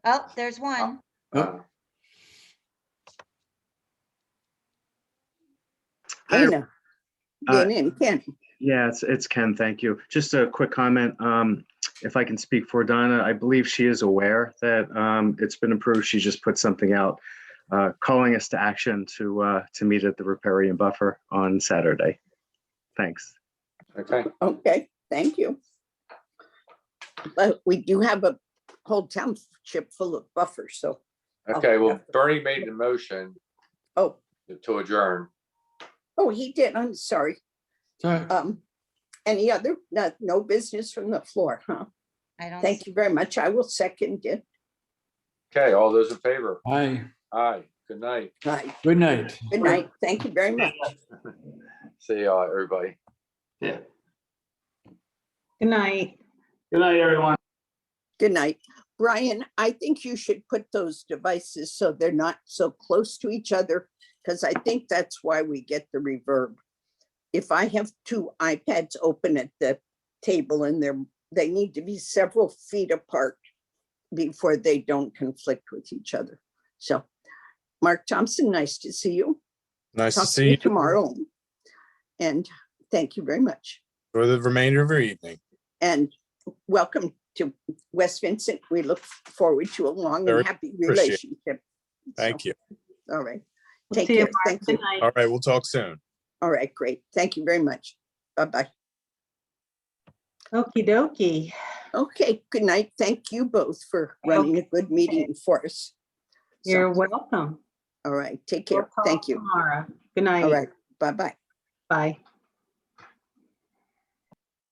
Oh, there's one. Oh. Hi, Dana. Uh, Dana and Ken. Yeah, it's, it's Ken. Thank you. Just a quick comment. Um, if I can speak for Donna, I believe she is aware that, um, it's been approved. She just put something out, uh, calling us to action to, uh, to meet at the Riparian Buffer on Saturday. Thanks. Okay, Okay, thank you. But we do have a whole township full of buffers, so, okay, well, Bernie made the motion oh, to adjourn. oh, he did, I'm sorry. Um, any other, no, no business from the floor, huh? I don't. Thank you very much. I will second it. Okay, all those in favor? Hi, Aye, good night. Right, good night. good night. Thank you very much. See y'all, everybody. Good night. Good night, everyone. Good night. Brian, I think you should put those devices so they're not so close to each other, because I think that's why we get the reverb. If I have two iPads open at the table and they're, they need to be several feet apart before they don't conflict with each other. So, Mark Thompson, nice to see you. Nice to Talk see you Tomorrow. And thank you very much. for the remainder of your evening. And welcome to West Vincent. We look forward to a long Very and happy appreciate it. relationship. Thank you. you. All right. We'll Take see you, care. Mark. Thank Good you. night. All right, we'll talk soon. All right, great. Thank you very much. Bye-bye. Okey dokey. Okay, good night. Thank you both for running a good meeting for us. So, You're welcome. All right, take We'll care. talk Thank you. Tomorrow. Good All night. right, bye-bye. Bye.